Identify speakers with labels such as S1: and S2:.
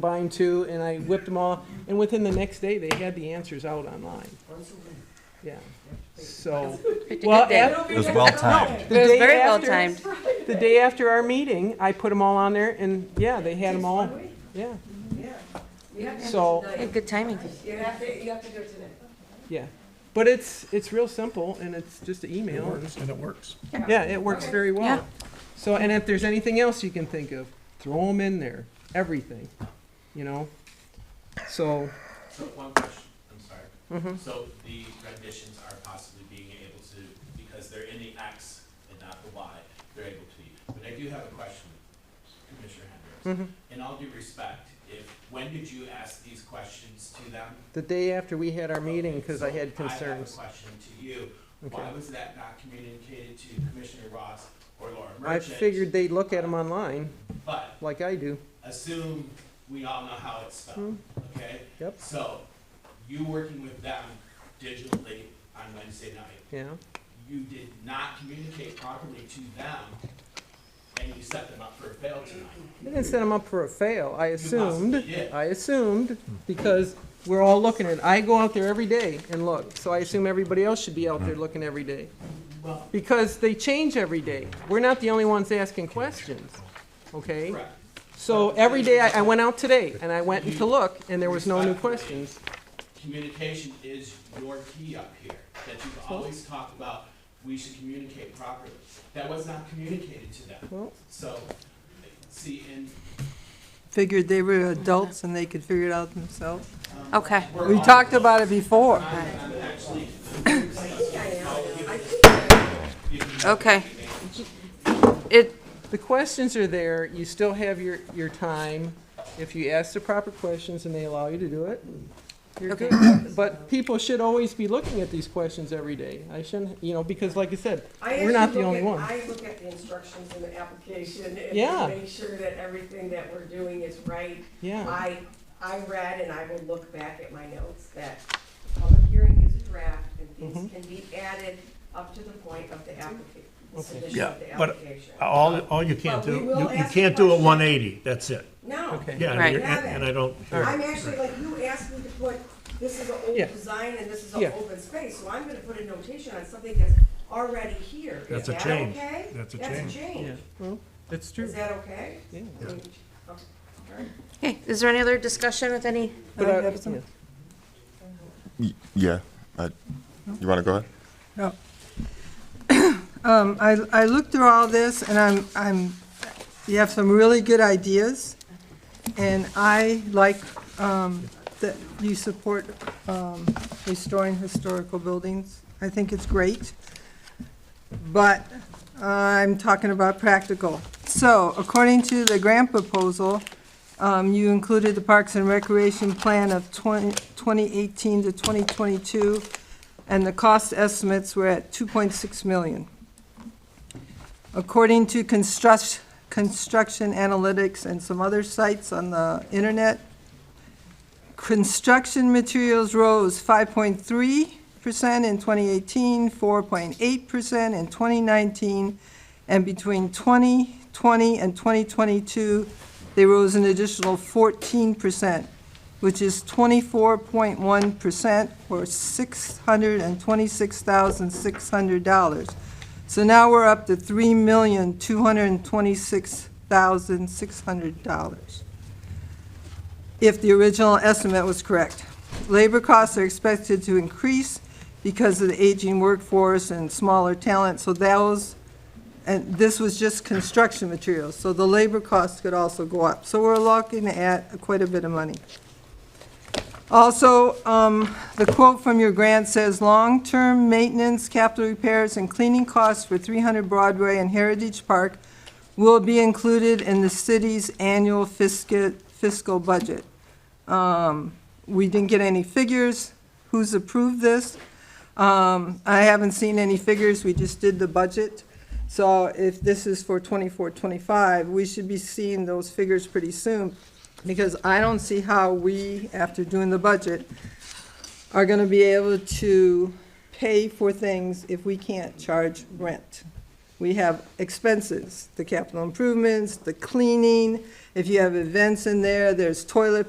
S1: combined two, and I whipped them all, and within the next day, they had the answers out online. Yeah, so,
S2: Picked a
S1: well,
S2: good day.
S1: af-
S3: It was well-timed.
S1: the
S2: It was
S1: day
S2: very well
S1: after-
S2: timed.
S1: The day after our meeting, I put them all on there, and yeah, they had them all, yeah, so,
S2: Yeah, Good timing.
S4: You have to, you have to do it tonight.
S1: yeah. But it's, it's real simple, and it's just an email, and,
S5: and it works.
S1: yeah, it works
S4: Okay.
S1: very
S2: Yeah.
S1: well. So, and if there's anything else you can think of, throw them in there, everything, you know? So,
S6: So one question, I'm sorry.
S1: mhm.
S6: So the renditions are possibly being able to, because they're in the X and not the Y, they're able to. But I do have a question, Commissioner Hendricks.
S1: Mm-hmm.
S6: In all due respect, if, when did you ask these questions to them?
S1: the day after we had our meeting, because I
S6: So
S1: had
S6: I have a
S1: concerns.
S6: question to you. Why
S1: Okay.
S6: was that not communicated to Commissioner Ross or Laura
S1: I
S6: Merchant?
S1: figured they'd look at them online,
S6: But
S1: like I do.
S6: assume we all know how it's spelled,
S1: Hmm.
S6: okay?
S1: Yep.
S6: So, you working with them digitally on Wednesday night,
S1: Yeah,
S6: you did not communicate properly to them, and you set them up for a fail tonight.
S1: I didn't set them up for a fail. I assumed,
S6: possibly did.
S1: I assumed because we're all looking at. it. I go out there every day and look, so I assume everybody else should be out there looking every day
S6: Well,
S1: because they change every day. We're not the only ones asking questions, okay?
S6: correct.
S1: So every day I, I went out today and I went to look and there was no new questions.
S6: Communication is your key up here, that you've always talked about, we should communicate properly. That was not communicated to them.
S1: Well-
S6: So, see, and,
S7: figured they were adults and they could figure it out themselves.
S6: um.
S2: Okay.
S6: we're
S7: We
S6: all-
S7: talked about it before.
S6: I'm actually.
S2: Okay. It,
S1: The questions are there, you still have your, your time. If you ask the proper questions and they allow you to do it, you're
S2: Okay.
S1: good. But people should always be looking at these questions every day. I shouldn't, you know, because like I said,
S4: I
S1: We're not
S4: actually
S1: the
S4: look
S1: only
S4: at-
S1: one.
S4: I look at the instructions and the application
S1: Yeah.
S4: and make sure that everything that we're doing is right.
S1: yeah,
S4: I, I read and I will look back at my notes that public hearing is a draft and things
S1: Mm-hmm.
S4: can be added up to the point of the application, submission
S5: Yeah,
S4: of the
S5: but-
S4: application.
S5: All, all you can't
S4: But
S5: do,
S4: we will
S5: you you
S4: ask
S5: can't
S4: the
S5: do a
S4: question.
S5: 180, that's it.
S4: No.
S1: Okay.
S5: Yeah,
S2: Right.
S5: and you're- and and I don't,
S4: I'm actually, like, you asked me to put, this is an old
S1: Yeah.
S4: design and this is
S1: Yeah.
S4: an open space, so I'm gonna put a notation on something that's already here. Is
S5: That's a
S4: that
S5: change.
S4: okay?
S5: That's a change.
S4: That's a change.
S1: that's true.
S4: Is that okay?
S1: Yeah.
S4: I mean, okay.
S2: hey, is there any other discussion with any?
S1: But uh,
S7: I
S1: I-
S7: have some-
S1: yeah.
S3: Y- Yeah, I- you want to go ahead?
S7: No. Um, I, I looked through all this and I'm, I'm, you have some really good ideas. And I like, um, that you support, um, restoring historical buildings. I think it's great. But I'm talking about practical. So according to the grant proposal, um, you included the Parks and Recreation Plan of 20 2018 to 2022, and the cost estimates were at 2.6 million. According to construct, construction analytics and some other sites on the internet, construction materials rose 5.3% in 2018, 4.8% in 2019, and between 2020 and 2022, they rose an additional 14%, which is 24.1%, or $626,600. So now we're up to $3,226,600 if the original estimate was correct. Labor costs are expected to increase because of the aging workforce and smaller talent, so those, and this was just construction materials, so the labor costs could also go up. So we're looking at quite a bit of money. Also, um, the quote from your grant says, "Long-term maintenance, capital repairs, and cleaning costs for 300 Broadway and Heritage Park will be included in the city's annual fiscal fiscal budget." Um, We didn't get any figures. Who's approved this? Um, I haven't seen any figures. We just did the budget. So if this is for 24, 25, we should be seeing those figures pretty soon, because I don't see how we, after doing the budget, are gonna be able to pay for things if we can't charge rent. we have expenses, the capital improvements, the cleaning. If you have events in there, there's toilet